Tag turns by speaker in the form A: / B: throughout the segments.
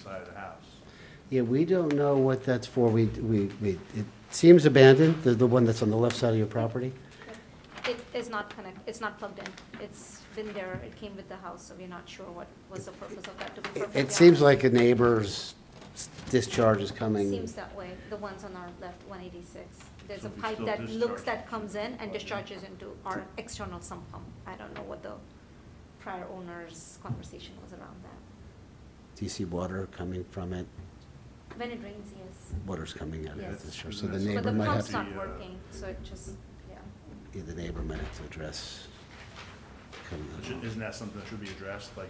A: side of the house.
B: Yeah, we don't know what that's for. We, we, we, it seems abandoned, the, the one that's on the left side of your property.
C: It is not connect, it's not plugged in. It's been there, it came with the house, so we're not sure what was the purpose of that, to be
B: It,
C: perfectly
B: it seems
C: honest.
B: like a neighbor's discharge is coming.
C: Seems that way, the ones on our left, one eighty-six. There's
A: So
C: a
A: we
C: pipe
A: still
C: that looks,
A: discharge.
C: that comes in and discharges into our external sump pump. I don't know what the prior owner's conversation was around that.
B: Do you see water coming from it?
C: When it rains, yes.
B: Water's coming out of it,
C: Yes.
B: this year, so the
A: But the
C: But
B: neighbor
C: the
B: might have,
C: pump's
B: to- uh,
A: pump-
C: not working, so it just, yeah.
B: yeah, the neighbor might have to address. coming out
A: Shou-
B: of-
A: Isn't that something that should be addressed, like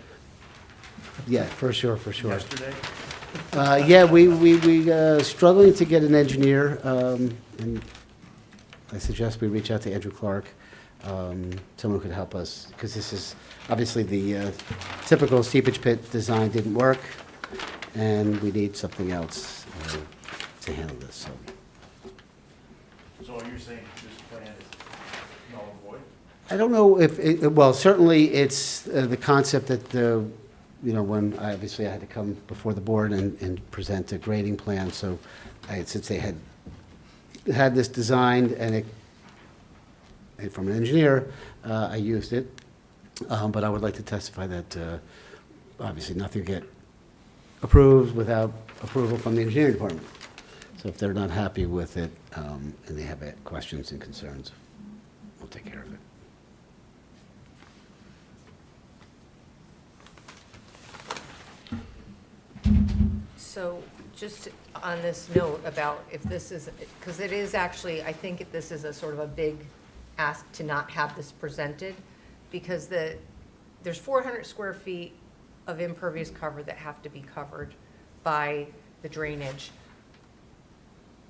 B: Yeah, for sure, for sure.
A: yesterday?
B: Uh, yeah, we, we, we, uh, struggling to get an engineer, um, and I suggest we reach out to Andrew Clark, um, someone who could help us, because this is, obviously, the, uh, typical seepage pit design didn't work, and we need something else, uh, to handle this, so.
A: So you're saying this plan is null and void?
B: I don't know if, it- well, certainly it's uh, the concept that the, you know, when, I obviously I had to come before the board and, and present a grading plan, so I, since they had, had this designed and it, and from an engineer, uh, I used it. Um, but I would like to testify that, uh, obviously nothing get approved without approval from the engineering department. So if they're not happy with it, um, and they have uh, questions and concerns, we'll take care of it.
D: So just on this note about if this is, because it is actually, I think this is a sort of a big ask to not have this presented, because the, there's 400 square feet of impervious cover that have to be covered by the drainage.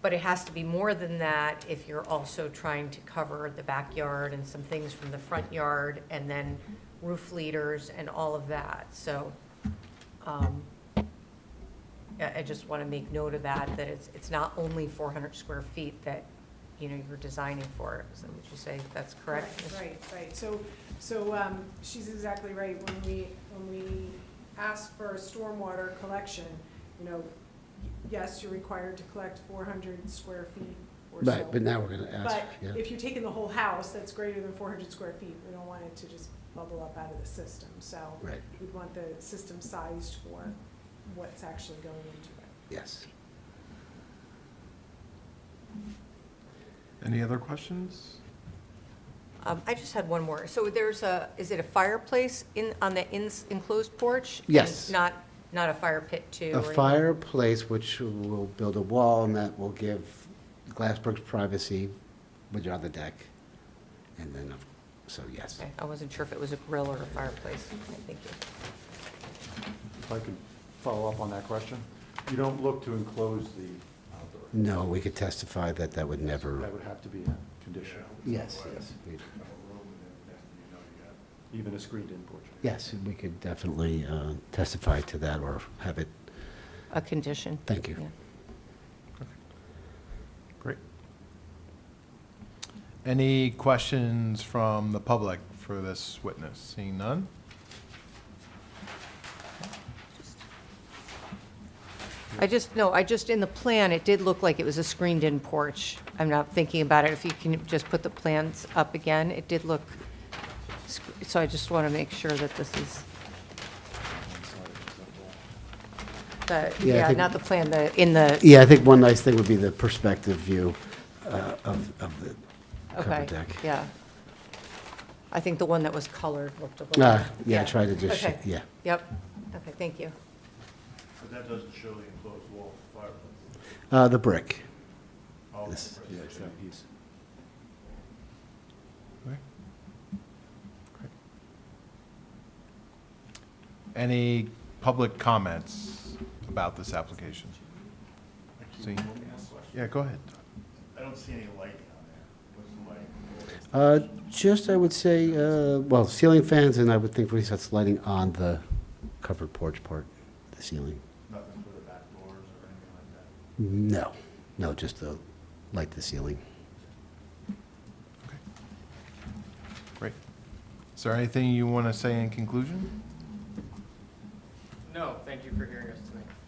D: But it has to be more than that if you're also trying to cover the backyard and some things from the front yard, and then roof leaders and all of that. So um, I I just want to make note of that, that it's, it's not only 400 square feet that, you know, you're designing for. So would you say that's correct? Ms.
E: Right, Right, right, so, so, um, she's exactly right, when we, when we ask for stormwater collection, you know, yes, you're required to collect four hundred square feet or so.
B: Right, but now we're gonna ask,
E: But
B: yeah.
E: if you're taking the whole house, that's greater than four hundred square feet, we don't want it to just bubble up out of the system, so
B: Right,
E: we'd want the system sized for what's actually going into it.
B: yes.
F: Any other questions?
D: Um, I just had one more. So there's a, is it a fireplace in, on the ins- enclosed porch? And
B: Yes.
D: Not, not a fire pit too? or
B: A
D: anything?
B: fireplace which will build a wall and that will give Glassberg's privacy, which are the deck. And then, so yes.
D: Okay, I wasn't sure if it was a grill or a fireplace. Okay, Thank you.
G: If I could follow up on that question, you don't look to enclose the outdoor.
B: No, we could testify that that would
G: That
B: never,
G: would have to be a condition,
B: yes, yes. we-
A: Have a room and everything, you know, you got-
G: even a screened-in porch.
B: Yes, we could definitely uh, testify to that or have it,
D: A condition.
B: thank you.
D: Yeah.
F: Great. Any questions from the public for this witness? Seeing none?
D: I just, no, I just, in the plan, it did look like it was a screened-in porch. I'm not thinking about it. If you can just put the plans up again, it did look, sc- so I just want to make sure that this is, the
B: Yeah, I
D: yeah,
B: think-
D: not the plan, the, in the,
B: Yeah, I think one nice thing would be the perspective view uh, of, of the
D: okay,
B: covered deck.
D: yeah. I think the one that was colored looked a little.
B: Ah, Yeah, try to just,
D: Okay.
B: yeah.
D: Yep, okay, thank you.
A: But that doesn't show the enclosed wall fireplace.
B: Uh, The brick.
A: Oh,
B: This-
A: right.
G: Yeah, it's that piece.
F: Okay. Great. Any public comments about this application?
A: I keep
F: See.
A: looking at this.
F: Yeah, go ahead.
A: I don't see any lighting on there. What's the lighting?
B: Uh, Just, I would say, uh, well, ceiling fans, and I would think we that's lighting on the covered porch part, the ceiling.
A: Nothing for the back doors or anything like that?
B: No, no, just the, light the ceiling.
F: Great. Is there anything you want to say in conclusion?
H: No, thank you for hearing us tonight.